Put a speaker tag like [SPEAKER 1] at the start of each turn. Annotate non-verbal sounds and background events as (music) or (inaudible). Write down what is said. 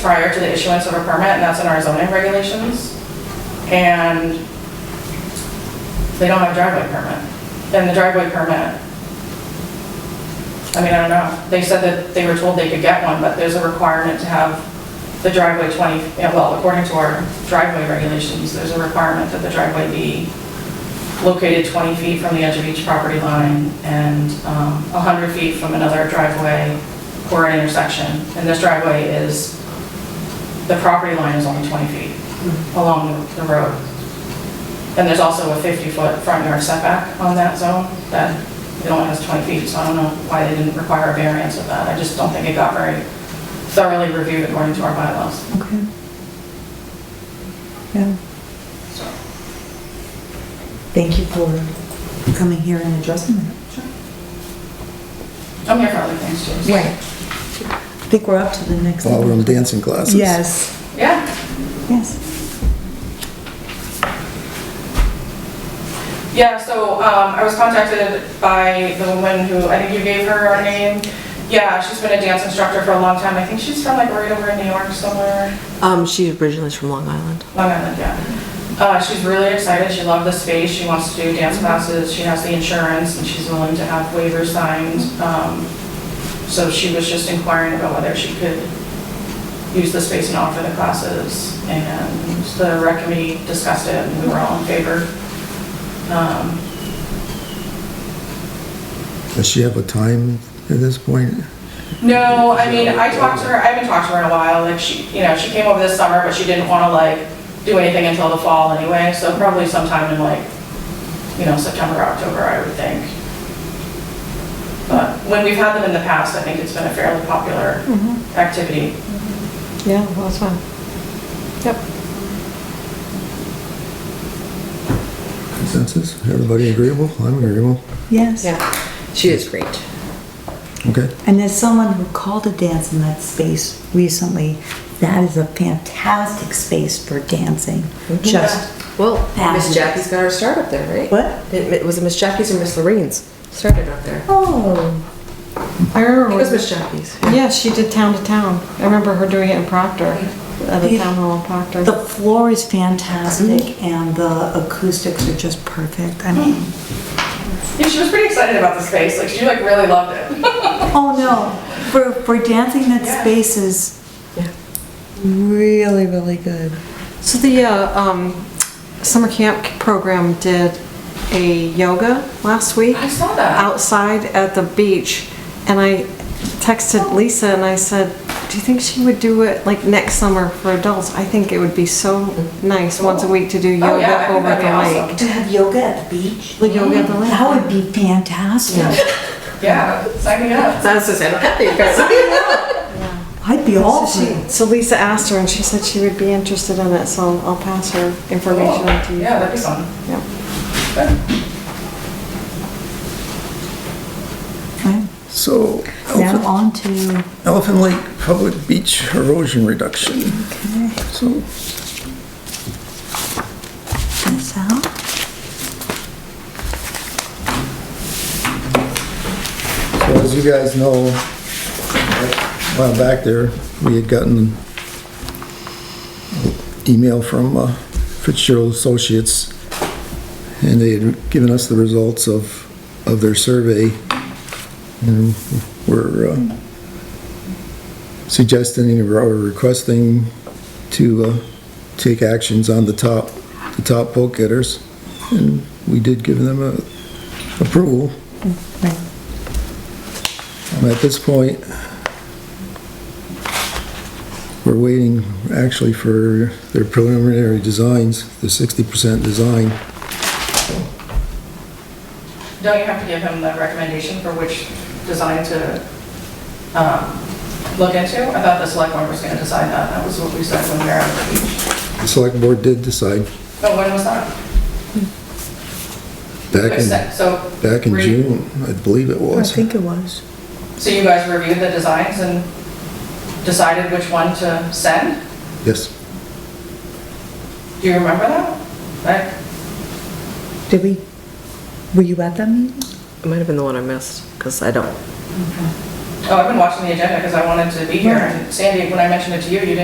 [SPEAKER 1] prior to the issuance of a permit, and that's in our zoning regulations. And they don't have driveway permit. And the driveway permit, I mean, I don't know, they said that they were told they could get one, but there's a requirement to have the driveway 20, yeah, well, according to our driveway regulations, there's a requirement that the driveway be located 20 feet from the edge of each property line and um, 100 feet from another driveway or an intersection. And this driveway is, the property line is only 20 feet along the road. And there's also a 50-foot front yard setback on that zone that it only has 20 feet, so I don't know why they didn't require a variance of that. I just don't think it got very thoroughly reviewed according to our bylaws.
[SPEAKER 2] Okay. Yeah.
[SPEAKER 1] So,
[SPEAKER 2] Thank you for coming here and addressing that.
[SPEAKER 1] I'm here for other things too. so-
[SPEAKER 2] Right. I think we're up to the next.
[SPEAKER 3] While we're in dancing classes.
[SPEAKER 2] Yes,
[SPEAKER 1] Yeah.
[SPEAKER 2] yes.
[SPEAKER 1] Yeah, so um, I was contacted by the woman who, I think you gave her her name. Yeah, she's been a dance instructor for a long time. I think she's from like right over in New York somewhere.
[SPEAKER 4] Um, she originally is from Long Island.
[SPEAKER 1] Long Island, yeah. Uh, She's really excited, she loved the space, she wants to do dance classes, she has the insurance, and she's willing to have waivers signed. Um, So she was just inquiring about whether she could use the space and offer the classes. And the rec committee discussed it, and we were all in favor. Um,
[SPEAKER 3] Does she have a time at this point?
[SPEAKER 1] No, I mean, I talked to her, I haven't talked to her in a while, like, she, you know, she came over this summer, but she didn't wanna like do anything until the fall anyway, so probably sometime in like, you know, September, October, I would think. But when we've had them in the past, I think it's been a fairly popular activity.
[SPEAKER 4] Yeah, well, that's fine. Yep.
[SPEAKER 3] Consensus? Everybody agreeable? I'm agreeable.
[SPEAKER 2] Yes.
[SPEAKER 4] Yeah, she is great.
[SPEAKER 3] Okay.
[SPEAKER 2] And there's someone who called a dance in that space recently. That is a fantastic space for dancing. Just,
[SPEAKER 4] Well,
[SPEAKER 2] Fabulous.
[SPEAKER 4] Miss Jackie's got her start up there, right?
[SPEAKER 2] what?
[SPEAKER 4] It, it was it Miss Jackie's or Miss Lorraine's started up there.
[SPEAKER 2] Oh,
[SPEAKER 4] It
[SPEAKER 5] I remember
[SPEAKER 4] was
[SPEAKER 5] when,
[SPEAKER 4] Miss Jackie's.
[SPEAKER 5] yeah, she did town to town. I remember her doing it in Proctor, at the town hall in Proctor.
[SPEAKER 2] the floor is fantastic and the acoustics are just perfect. I mean,
[SPEAKER 1] Yeah, she was pretty excited about the space, like, she like really loved it.
[SPEAKER 2] oh no, for, for dancing, that
[SPEAKER 1] Yeah.
[SPEAKER 2] space is
[SPEAKER 4] Yeah.
[SPEAKER 2] really, really good.
[SPEAKER 5] So the uh, um, summer camp program did a yoga last week
[SPEAKER 1] I saw that.
[SPEAKER 5] outside at the beach, and I texted Lisa and I said, "Do you think she would do it like next summer for adults? I think it would be so nice once a week to do
[SPEAKER 1] Oh, yeah, I
[SPEAKER 5] yoga
[SPEAKER 1] think
[SPEAKER 5] over
[SPEAKER 1] that'd be
[SPEAKER 5] the
[SPEAKER 1] awesome.
[SPEAKER 5] lake."
[SPEAKER 2] To have yoga at the beach?
[SPEAKER 5] The yoga at the lake.
[SPEAKER 2] That would be fantastic.
[SPEAKER 1] Yeah, sign me up.
[SPEAKER 4] That's just, I don't have you guys.
[SPEAKER 2] I'd be all
[SPEAKER 5] So she-
[SPEAKER 2] for it.
[SPEAKER 5] So Lisa asked her, and she said she would be interested in it, so I'll pass her information on to you.
[SPEAKER 1] Yeah, that'd be fun.
[SPEAKER 5] Yep.
[SPEAKER 2] Okay,
[SPEAKER 3] So
[SPEAKER 2] Now
[SPEAKER 3] Elephant-
[SPEAKER 2] on to,
[SPEAKER 3] Elephant Lake Public Beach Erosion Reduction. So
[SPEAKER 2] this out.
[SPEAKER 3] So as you guys know, a while back there, we had gotten email from uh, Fitzgerald Associates, and they had given us the results of, of their survey. And we're uh, suggesting or requesting to uh, take actions on the top, the top vote getters. And we did give them a approval. Um, At this point, we're waiting actually for their preliminary designs, the 60% design.
[SPEAKER 1] Don't you have to give him the recommendation for which design to um, look into? I thought the select board was going to decide that, that was what we said when we were at the beach.
[SPEAKER 3] The select board did decide
[SPEAKER 1] But when was that?
[SPEAKER 3] back in,
[SPEAKER 1] So,
[SPEAKER 3] back in
[SPEAKER 1] re-
[SPEAKER 3] June, I believe it was.
[SPEAKER 2] it was.
[SPEAKER 1] so you guys reviewed the designs and decided which one to send?
[SPEAKER 3] Yes.
[SPEAKER 1] Do you remember that? Like,
[SPEAKER 2] Did we, were you at that meeting?
[SPEAKER 4] (laughs) It might have been the one I missed, because I don't
[SPEAKER 1] Oh, I've been watching the agenda because I wanted to be here, and Sandy, when I mentioned it to you, you didn't